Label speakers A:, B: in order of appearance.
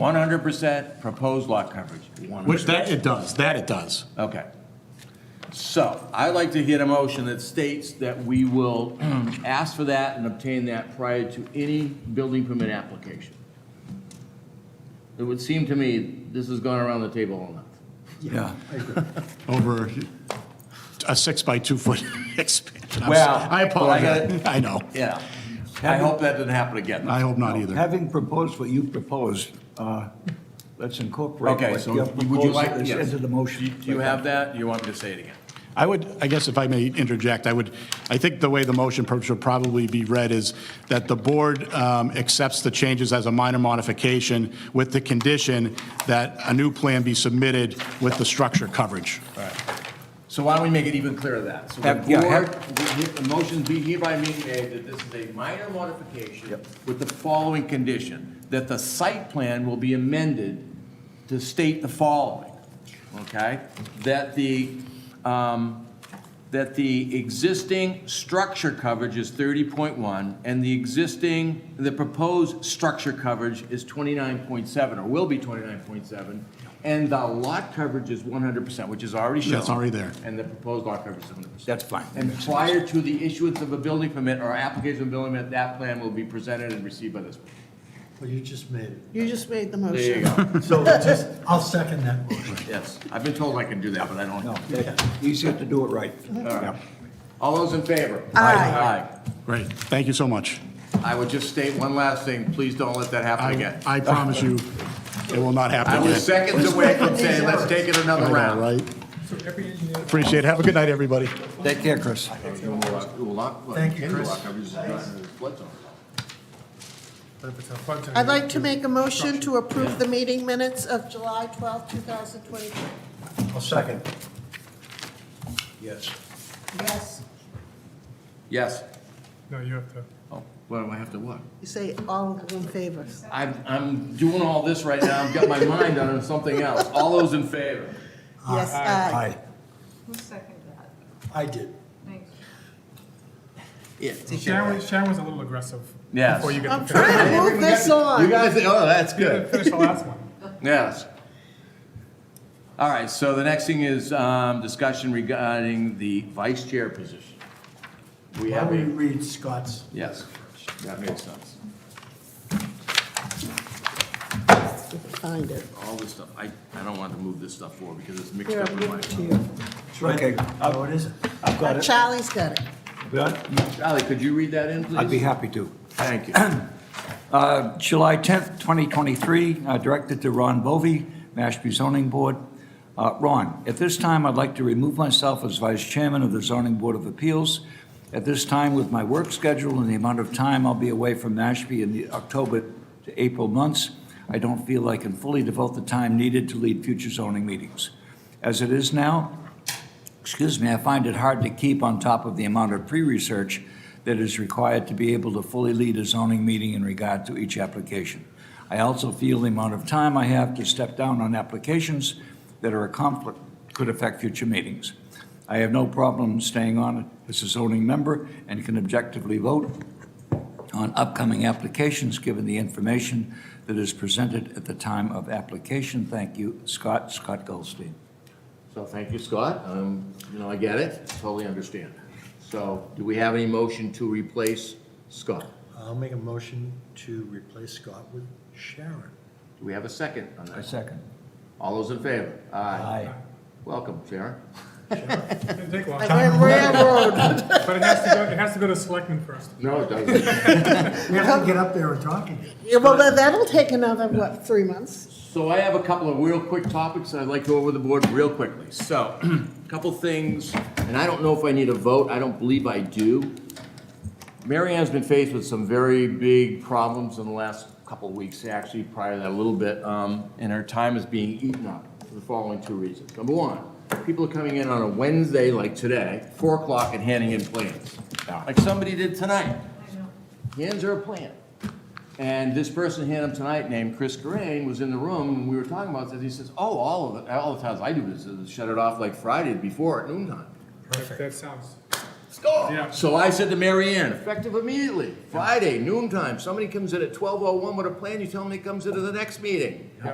A: 100% proposed lot coverage. 100%.
B: Which that it does, that it does.
A: Okay. So I'd like to hit a motion that states that we will ask for that and obtain that prior to any building permit application. It would seem to me this has gone around the table all night.
C: Yeah.
B: Over a six by two foot expansion. I'm s-
A: Well,
B: I
A: but I gotta-
B: apologize. I know.
A: Yeah. I hope that doesn't happen again.
B: I hope not either.
C: Having proposed what you proposed, uh, let's incorporate
A: Okay,
C: what
A: so
C: your
A: would you
C: proposal
A: like,
C: is
A: yes.
C: into the
A: Do you-
C: motion.
A: Do you have that? You want me to say it again?
B: I would, I guess if I may interject, I would, I think the way the motion pro- should probably be read is that the board um, accepts the changes as a minor modification with the condition that a new plan be submitted with the structure coverage.
A: So why don't we make it even clearer than that? So the
C: Have- yeah, have-
A: board, the the motion be hereby being made that this is a minor modification
C: Yep.
A: with the following condition, that the site plan will be amended to state the following, okay? That the, um, that the existing structure coverage is thirty point one, and the existing, the proposed structure coverage is twenty-nine point seven, or will be twenty-nine point seven, and the lot coverage is one hundred percent, which is already shown.
B: That's already there.
A: And the proposed lot coverage is one hundred percent.
C: That's fine.
A: And prior to the issuance of a building permit or application of a building permit, that plan will be presented and received by this.
D: Well, you just made it.
E: You just made the
A: There you
E: motion.
A: go.
D: So just, I'll second that motion.
A: Yes, I've been told I can do that, but I
C: No,
A: don't.
C: that's easier to do it right. Yeah.
A: All those in favor?
E: Aye.
A: Aye.
B: Great, thank you so much.
A: I would just state one last thing, please don't let that happen
B: I,
A: again.
B: I promise you, it will not happen
A: I
B: again.
A: was seconds away from saying, let's take it
B: I
A: another
B: know,
A: round.
B: right? Appreciate it, have a good night, everybody.
C: Take care, Chris.
D: Thank you, Chris. But if it's a flood zone,
E: I'd like to make a motion to approve the meeting minutes of July twelfth, two 2023.
D: I'll second.
C: Yes.
E: Yes,
A: Yes.
D: No, you have to.
A: Oh, Well, I have to what?
E: you say all in favor.
A: I'm, I'm doing all this right now, I've got my mind on something else. All those in favor?
E: Yes, aye.
D: Aye.
F: Who seconded that?
D: I did.
F: Thanks.
A: Yeah.
G: Sharon, was- Sharon was a little aggressive.
A: Yes.
G: Before you get
E: I'm
G: to finish,
E: trying to move this
A: You
E: on.
A: guys, oh, that's
G: you
A: good.
G: didn't finish the last one.
A: Yes. All right, so the next thing is um, discussion regarding the vice chair position. We
D: Why
A: have
D: don't we
A: a,
D: read Scott's?
A: yes, that makes sense.
E: Find it.
A: All this stuff, I, I don't want to move this stuff forward because it's mixed
E: Here,
A: up
E: I'll
A: in
E: give
A: my.
E: it to you.
C: Okay,
D: Oh, it isn't.
C: I've got it.
E: Charlie's got it.
C: Yeah,
A: Charlie, could you read that in, please?
C: I'd be happy to.
A: Thank you.
C: Uh, July 10th, 2023, uh, directed to Ron Bovee, Mashpee Zoning Board. Uh, Ron, at this time, I'd like to remove myself as Vice Chairman of the Zoning Board of Appeals. At this time, with my work schedule and the amount of time I'll be away from Mashpee in the October to April months, I don't feel I can fully devote the time needed to lead future zoning meetings. As it is now, excuse me, I find it hard to keep on top of the amount of pre-research that is required to be able to fully lead a zoning meeting in regard to each application. I also feel the amount of time I have to step down on applications that are a conflict could affect future meetings. I have no problem staying on as a zoning member and can objectively vote on upcoming applications, given the information that is presented at the time of application. Thank you, Scott, Scott Goldstein.
A: So thank you, Scott. Um, You know, I get it, totally understand. So do we have any motion to replace Scott?
D: I'll make a motion to replace Scott with Sharon.
A: Do we have a second on
C: I
A: that?
C: second.
A: All those in favor? Aye.
C: Aye.
A: Welcome, Sharon.
G: Didn't take long,
E: I went railroad.
G: but it has to go, it has to go to selectmen first.
A: No, it doesn't.
D: We have to get up there and talk again.
E: Yeah, Well, that- that'll take another, what, three months?
A: So I have a couple of real quick topics I'd like to go over the board real quickly. So, a couple things, and I don't know if I need a vote, I don't believe I do. Mary Ann's been faced with some very big problems in the last couple of weeks, actually prior to that a little bit, um, and her time is being eaten up for the following two reasons. Number one, people are coming in on a Wednesday like today, four o'clock and handing in plans, like somebody did tonight. Hands are a plan. And this person handed him tonight, named Chris Corain, was in the room, and we were talking about this, he says, oh, all of it, all the times I do this, is shut it off like Friday before at noon time.
G: That- That sounds,
A: Score!
G: Yeah.
A: So I said to Mary Ann, effective immediately, Friday, noon time, somebody comes in at twelve oh one with a plan, you tell them he comes into the next meeting.